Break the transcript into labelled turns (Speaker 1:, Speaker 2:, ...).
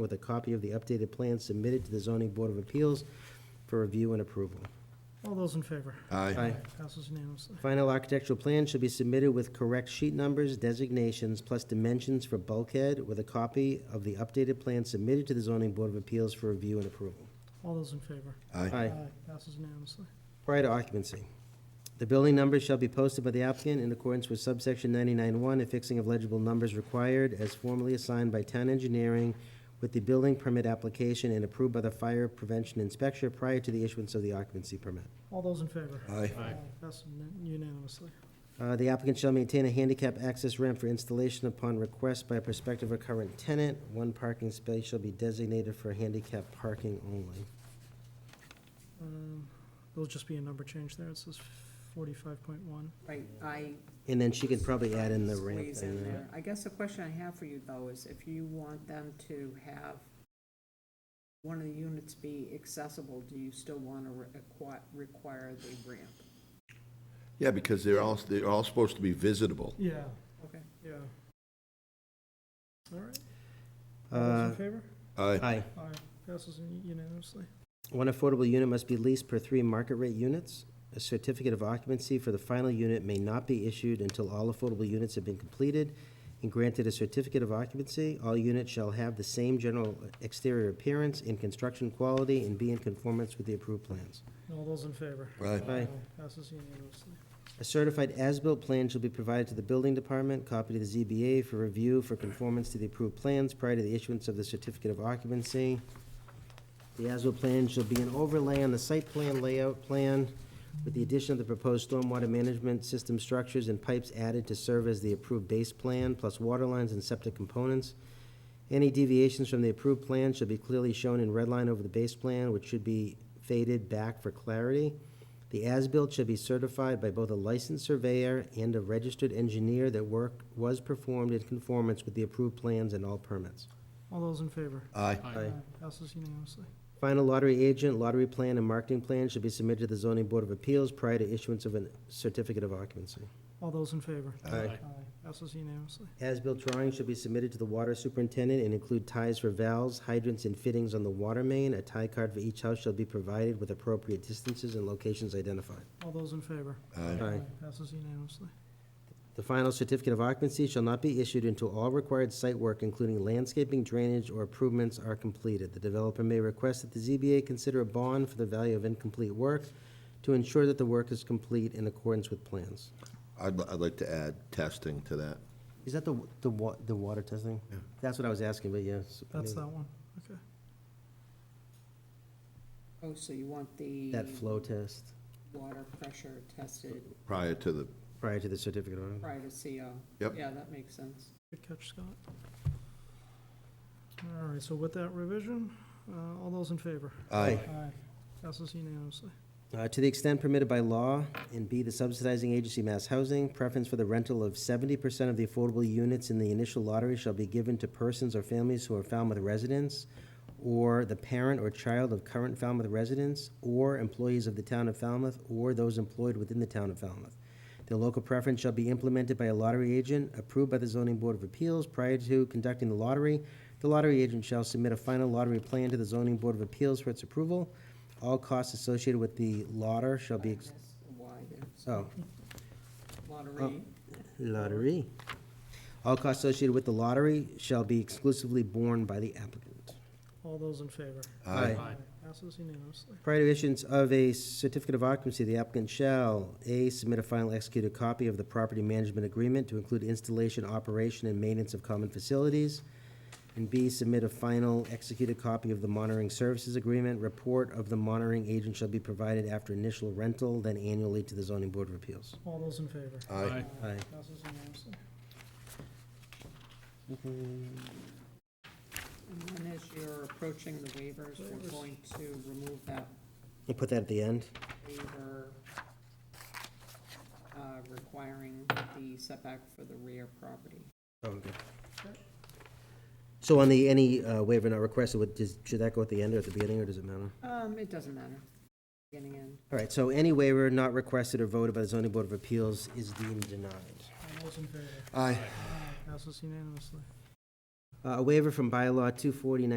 Speaker 1: with a copy of the updated plan submitted to the zoning board of appeals for review and approval.
Speaker 2: All those in favor?
Speaker 1: Aye.
Speaker 2: Passes unanimously.
Speaker 1: Final architectural plan should be submitted with correct sheet numbers, designations, plus dimensions for bulkhead with a copy of the updated plan submitted to the zoning board of appeals for review and approval.
Speaker 2: All those in favor?
Speaker 3: Aye.
Speaker 1: Aye.
Speaker 2: Passes unanimously.
Speaker 1: Prior to occupancy, the building numbers shall be posted by the applicant in accordance with subsection 99-1, affixing of legible numbers required as formally assigned by town engineering with the building permit application and approved by the fire prevention inspector prior to the issuance of the occupancy permit.
Speaker 2: All those in favor?
Speaker 3: Aye.
Speaker 2: Passes unan- unanimously.
Speaker 1: Uh, The applicant shall maintain a handicap access ramp for installation upon request by a prospective or current tenant. One parking space shall be designated for handicap parking only.
Speaker 2: Um, There'll just be a number change there. It says forty-five point one.
Speaker 4: Right, I
Speaker 1: And then she could probably add in the ramp.
Speaker 4: squeeze in
Speaker 1: thing, right?
Speaker 4: there. I guess the question I have for you though is if you want them to have one of the units be accessible, do you still want to require the ramp?
Speaker 3: Yeah, because they're all, they're all supposed to be visitable.
Speaker 2: Yeah,
Speaker 4: Okay.
Speaker 2: yeah. All right, all those
Speaker 1: Uh,
Speaker 2: in favor?
Speaker 3: Aye.
Speaker 1: Aye.
Speaker 2: Aye. Passes un- unanimously.
Speaker 1: One affordable unit must be leased per three market rate units. A certificate of occupancy for the final unit may not be issued until all affordable units have been completed and granted a certificate of occupancy. All units shall have the same general exterior appearance and construction quality and be in conformance with the approved plans.
Speaker 2: All those in favor?
Speaker 3: Aye.
Speaker 1: Aye.
Speaker 2: Passes unanimously.
Speaker 1: A certified as-built plan shall be provided to the building department, copy to the ZBA for review for conformance to the approved plans prior to the issuance of the certificate of occupancy. The as-built plan shall be an overlay on the site plan layout plan with the addition of the proposed stormwater management system structures and pipes added to serve as the approved base plan, plus water lines and septic components. Any deviations from the approved plan shall be clearly shown in red line over the base plan, which should be faded back for clarity. The as-built should be certified by both a licensed surveyor and a registered engineer that work was performed in conformance with the approved plans and all permits.
Speaker 2: All those in favor?
Speaker 3: Aye.
Speaker 1: Aye.
Speaker 2: Passes unanimously.
Speaker 1: Final lottery agent, lottery plan, and marketing plan should be submitted to the zoning board of appeals prior to issuance of a certificate of occupancy.
Speaker 2: All those in favor?
Speaker 1: Aye.
Speaker 2: Passes unanimously.
Speaker 1: As-built drawings should be submitted to the water superintendent and include ties for valves, hydrants, and fittings on the water main. A tie card for each house shall be provided with appropriate distances and locations identified.
Speaker 2: All those in favor?
Speaker 3: Aye.
Speaker 1: Aye.
Speaker 2: Passes unanimously.
Speaker 1: The final certificate of occupancy shall not be issued until all required site work, including landscaping, drainage, or improvements are completed. The developer may request that the ZBA consider a bond for the value of incomplete work to ensure that the work is complete in accordance with plans.
Speaker 3: I'd, I'd like to add testing to that.
Speaker 1: Is that the, the wa, the water testing?
Speaker 3: Yeah.
Speaker 1: That's what I was asking, but yes.
Speaker 2: That's that one, okay.
Speaker 4: Oh, so you want the
Speaker 1: That flow test
Speaker 4: water pressure tested
Speaker 3: Prior to the,
Speaker 1: prior to the certificate of occupancy.
Speaker 4: prior to CO?
Speaker 3: Yep.
Speaker 4: Yeah, that makes sense.
Speaker 2: Good catch, Scott. All right, so with that revision, uh, all those in favor?
Speaker 3: aye.
Speaker 2: Aye. Passes unanimously.
Speaker 1: Uh, To the extent permitted by law, and B, the subsidizing agency mass housing, preference for the rental of seventy percent of the affordable units in the initial lottery shall be given to persons or families who are Falmouth residents, or the parent or child of current Falmouth residents, or employees of the town of Falmouth, or those employed within the town of Falmouth. The local preference shall be implemented by a lottery agent approved by the zoning board of appeals prior to conducting the lottery. The lottery agent shall submit a final lottery plan to the zoning board of appeals for its approval. All costs associated with the lotter shall be, ex-
Speaker 4: That's Why there's
Speaker 1: oh,
Speaker 4: lottery,
Speaker 1: lottery. All costs associated with the lottery shall be exclusively borne by the applicant.
Speaker 2: All those in favor?
Speaker 1: Aye.
Speaker 2: Passes unanimously.
Speaker 1: Prior to issuance of a certificate of occupancy, the applicant shall, A, submit a final executed copy of the property management agreement to include installation, operation, and maintenance of common facilities, and B, submit a final executed copy of the monitoring services agreement. Report of the monitoring agent shall be provided after initial rental, then annually to the zoning board of appeals.
Speaker 2: All those in favor?
Speaker 3: Aye.
Speaker 1: Aye.
Speaker 2: Passes unanimously.
Speaker 4: and then as you're approaching the waivers, we're
Speaker 2: Waivers.
Speaker 4: going to remove that
Speaker 1: We'll put that at the end.
Speaker 4: waiver uh, requiring the setback for the rear property.
Speaker 1: Oh, okay. So on the, any uh, waiver not requested, would, does- should that go at the end or at the beginning, or does it matter?
Speaker 4: Um, it doesn't matter, beginning and,
Speaker 1: All right, so any waiver not requested or voted by the zoning board of appeals is deemed denied.
Speaker 2: All those in favor?
Speaker 3: Aye.
Speaker 2: Passes unanimously.
Speaker 1: Uh, A waiver from bylaw two forty nineteen